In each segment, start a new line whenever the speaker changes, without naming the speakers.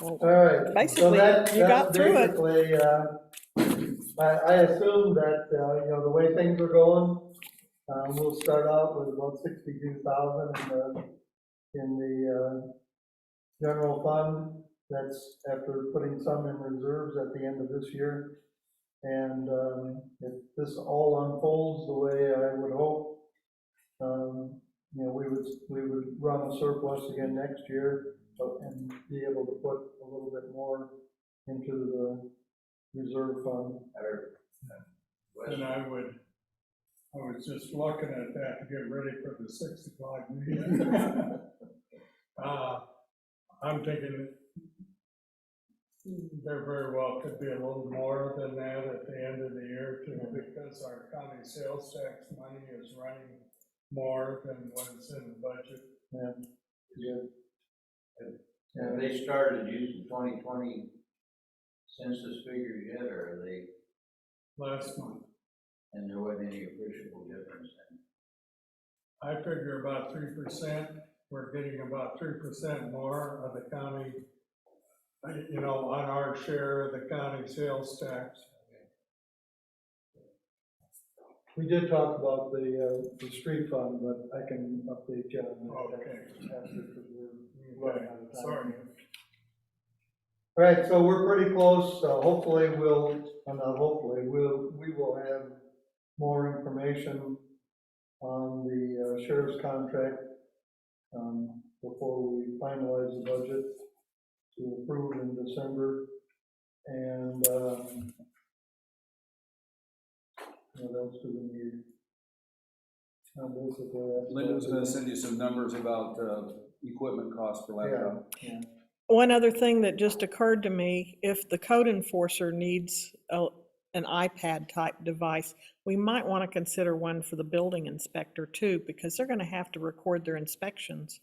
Well,
All right. so
Basically,
that-
you got
that's
through it.
Basically, uh, I, I assume that, uh, you know, the way things are going, uh, we'll start out with about sixty-two thousand in the, in the, uh, general fund. That's after putting some in reserves at the end of this year. And, um, if this all unfolds the way I would hope, um, you know, we would, we would run a surplus again next year but- and be able to put a little bit more into the reserve fund.
And I would, I was just looking at that to get ready for the six o'clock meeting. Uh, I'm thinking there very well could be a little more than that at the end of the year too, because our county sales tax money is running more than what is in the budget.
Yeah.
Have
Yeah.
they started using twenty twenty census figures yet, or are they,
Last month,
and there wasn't any appreciable difference? in-
I figure about three percent, we're getting about three percent more of the county, uh, you know, on our share of the county sales tax.
We did talk about the, uh, the street fund, but I can update you on that.
Okay.
after, 'cause we're running
Right,
out of time.
sorry.
All right, so we're pretty close, so hopefully we'll, uh, not hopefully, we'll, we will have more information on the uh, sheriff's contract, um, before we finalize the budget to approve in December, and, um, what else do we need? Uh, basically, that's-
Lyndon's gonna send you some numbers about, uh, equipment costs for
Yeah.
laptop.
One other thing that just occurred to me, if the code enforcer needs a, an iPad type device, we might want to consider one for the building inspector too, because they're going to have to record their inspections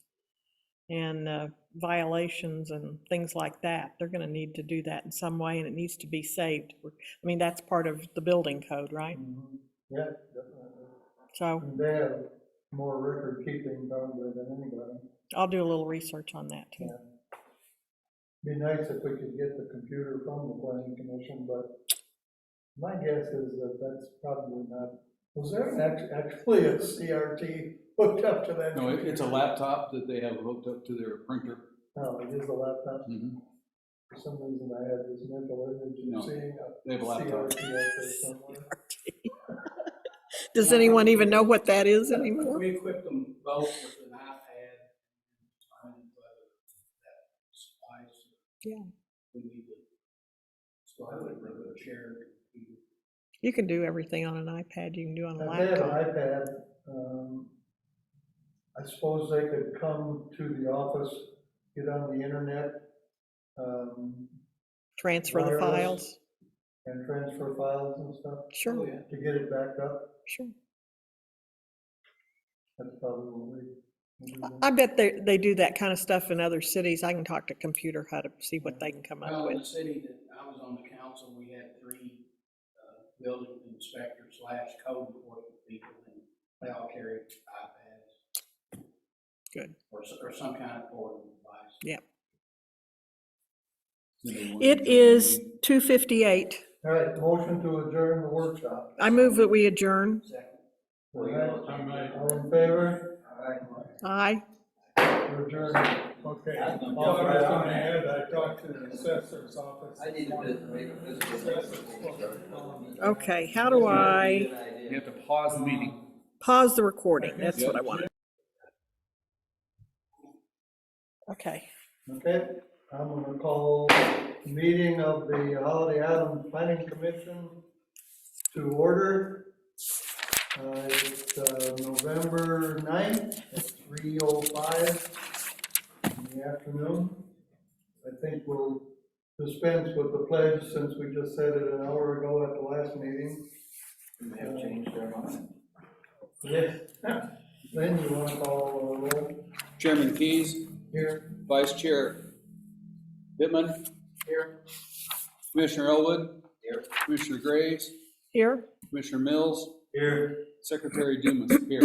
and uh, violations and things like that. They're going to need to do that in some way and it needs to be saved. I mean, that's part of the building code, right?
Mhm. Yeah, definitely.
So
They have more record keeping probably than anybody.
I'll do a little research on that too.
Be nice if we could get the computer from the planning commission, but my guess is that that's probably not, was there an act- actually a CRT hooked up to that?
No, it- it's a
computer?
laptop that they have hooked up to their printer.
No, it is a laptop.
Mhm.
For some reason I had this mental image
No,
of seeing a
They have a laptop.
CRT out there somewhere.
Does anyone even know what that is anymore?
We equipped them both with an iPad and whether that supplies.
Yeah.
We need to. So I would rather share.
You can do everything on an iPad, you can do on a
If they have an
laptop.
iPad, um, I suppose they could come to the office, get on the internet, um,
Transfer the
wireless.
files.
and transfer files and stuff
Oh,
Sure,
yeah.
to get it back up.
sure.
That's probably what we. we do.
I bet they, they do that kind of stuff in other cities. I can talk to Computer Hut to see what they can come up
Well, in
with.
the city that I was on the council, we had three, uh, building inspector slash code enforcement people and they all carried iPads.
Good.
Or, s- or some kind of portable device. Oh,
It is 2:58.
All right, motion to adjourn the workshop.
I move that we adjourn.
Second.
All right,
I might,
all in favor?
Aye.
We're adjourned.
okay.
I don't know.
All I was gonna add, I talked to the assessor's office.
I didn't just make a visit.
Okay, how do I
You have to pause the meeting.
pause the recording? That's what I wanted. Okay.
Okay, I'm gonna call meeting of the Holiday Island Planning Commission to order. Uh, It's uh, November 9th at 3:05 in the afternoon. I think we'll dispense with the pledge since we just said it an hour ago at the last meeting.
They have changed their mind.
Yes. Lynn, you wanna call the roll
Chairman Keys,
here?
Vice Chair Bittman. Here. Commissioner Elwood.
Here.
Commissioner Graves,
Here?
Commissioner Mills,
Here.
Secretary Dumas, here.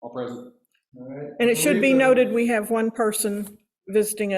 All present.
All right.
And it should be
Lisa.
noted, we have one person visiting us.